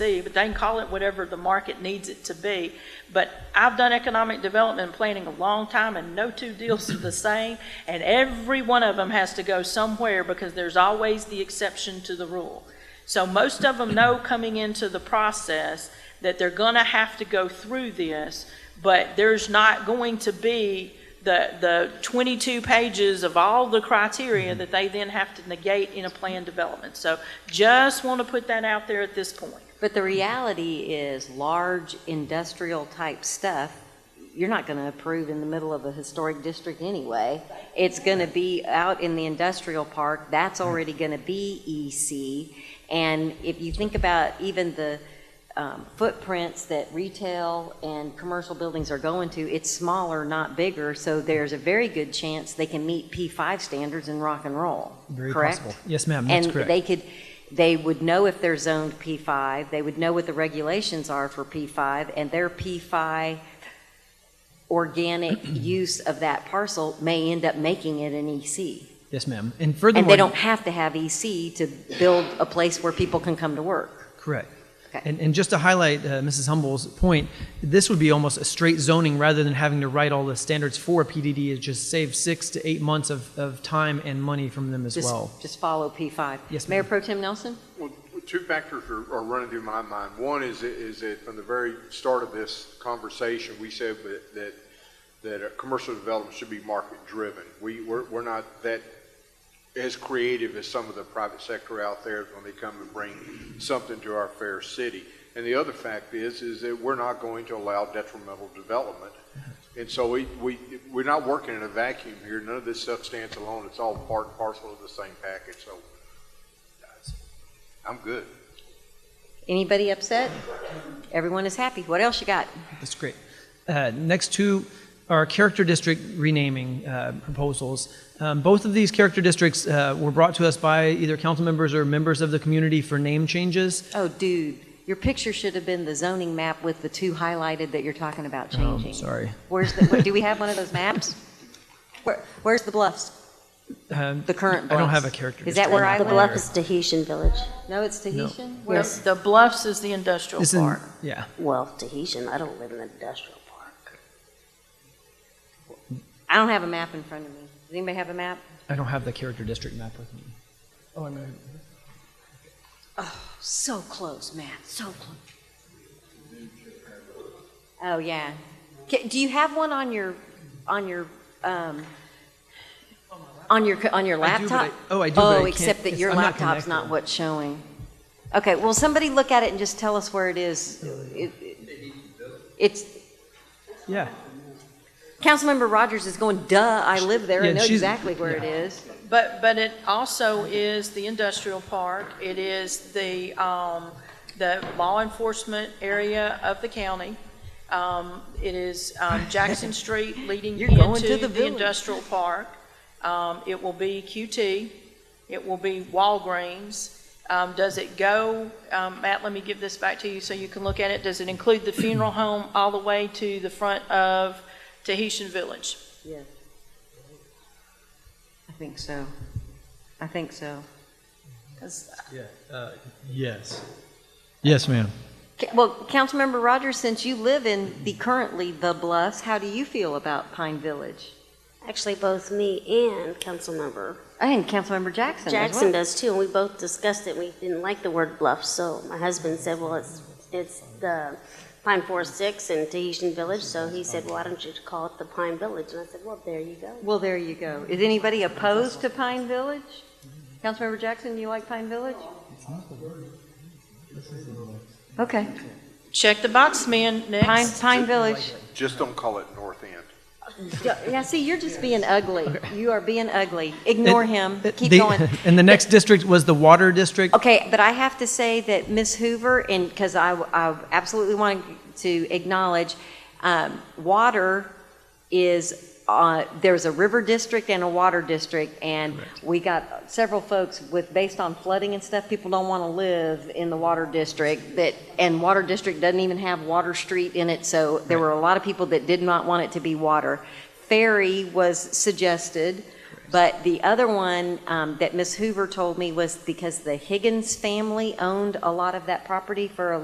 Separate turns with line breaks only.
be, but they can call it whatever the market needs it to be. But I've done economic development and planning a long time, and no two deals are the same, and every one of them has to go somewhere because there's always the exception to the rule. So most of them know coming into the process that they're going to have to go through this, but there's not going to be the, the 22 pages of all the criteria that they then have to negate in a plan development. So just want to put that out there at this point.
But the reality is, large industrial type stuff, you're not going to approve in the middle of a historic district anyway. It's going to be out in the industrial park, that's already going to be EC. And if you think about even the um, footprints that retail and commercial buildings are going to, it's smaller, not bigger, so there's a very good chance they can meet P5 standards in rock and roll,
Very
correct?
possible. Yes, ma'am, that's
And
correct.
they could, they would know if they're zoned P5, they would know what the regulations are for P5, and their P5 organic use of that parcel may end up making it an EC.
Yes, ma'am. And furthermore,
And they don't have to have EC to build a place where people can come to work.
Correct.
Okay.
And, and just to highlight uh, Mrs. Humble's point, this would be almost a straight zoning rather than having to write all the standards for a PDD. It just saves six to eight months of, of time and money from them as
Just-
well.
Just follow P5.
Yes,
Mayor
ma'am.
Pro Tem Nelson?
Well, two factors are, are running through my mind. One is, that- is that from the very start of this conversation, we said that, that, that uh, commercial development should be market-driven. We, we're, we're not that as creative as some of the private sector out there when they come and bring something to our fair city. And the other fact is, is that we're not going to allow detrimental development. And so we, we, we're not working in a vacuum here. None of this stuff stands alone. It's all part and parcel of the same package, so I'm good.
Anybody upset? Everyone is happy. What else you got?
That's great. Uh, next two are character district renaming uh, proposals. Um, both of these character districts uh, were brought to us by either council members or members of the community for name changes.
Oh, dude, your picture should have been the zoning map with the two highlighted that you're talking about
Um,
changing.
sorry.
Where's the, wait, do we have one of those maps? Where, where's the bluffs?
Um,
The current bluffs?
I don't have a character
Is that
district
where
map
I
The
on
live?
bluff is Tahitian Village.
No, it's Tahitian? Where-
The the Bluffs is the industrial
It's in-
park.
yeah.
Well, Tahitian, I don't live in an industrial park.
I don't have a map in front of me. Does anybody have a map?
I don't have the character district map with me. Oh, I'm gonna-
So close, Matt, so close. Oh, yeah. Ca- Do you have one on your, on your, um, on your, co- on your
I do, but I-
laptop?
oh, I do, but I
Oh,
can't-
except that
it's-
your
I'm not
laptop's not
connected.
what's showing. Okay, well, somebody look at it and just tell us where it is. It- it- It's,
Yeah.
Councilmember Rogers is going, duh, I live there,
Yeah,
I
and
know
she's-
exactly where it
yeah.
is.
But, but it also is the industrial park, it is the, um, the law enforcement area of the county. Um, it is, um, Jackson Street leading
You're going to
into the
the village.
industrial park. Um, it will be QT, it will be Walgreens. Um, does it go, um, Matt, let me give this back to you so you can look at it. Does it include the funeral home all the way to the front of Tahitian Village?
I think so. I think so.
'Cause
Yeah, uh, yes. Yes, ma'am.
Ca- Well, Councilmember Rogers, since you live in the currently the Bluffs, how do you feel about Pine Village?
Actually, both me and Councilmember
And Councilmember Jackson as well.
Jackson does too, and we both discussed it. We didn't like the word bluff, so my husband said, well, it's, it's the Pine Forest Six and Tahitian Village, so he said, why don't you call it the Pine Village? And I said, well, there you go.
Well, there you go. Is anybody opposed to Pine Village? Councilmember Jackson, you like Pine Village? Okay,
Check the box, man, next.
Pine, Pine Village.
Just don't call it North End.
Now, see, you're just being ugly. You are being ugly. Ignore him. Keep
The-
going.
And the next district was the water district.
Okay, but I have to say that Ms. Hoover, and, because I, I absolutely want to acknowledge, um, water is, uh, there's a river district and a water district, and we got several folks with, based on flooding and stuff, people don't want to live in the water district, that, and water district doesn't even have Water Street in it, so there were a lot of people that did not want it to be water. Ferry was suggested. But the other one um, that Ms. Hoover told me was because the Higgins family owned a lot of that property for a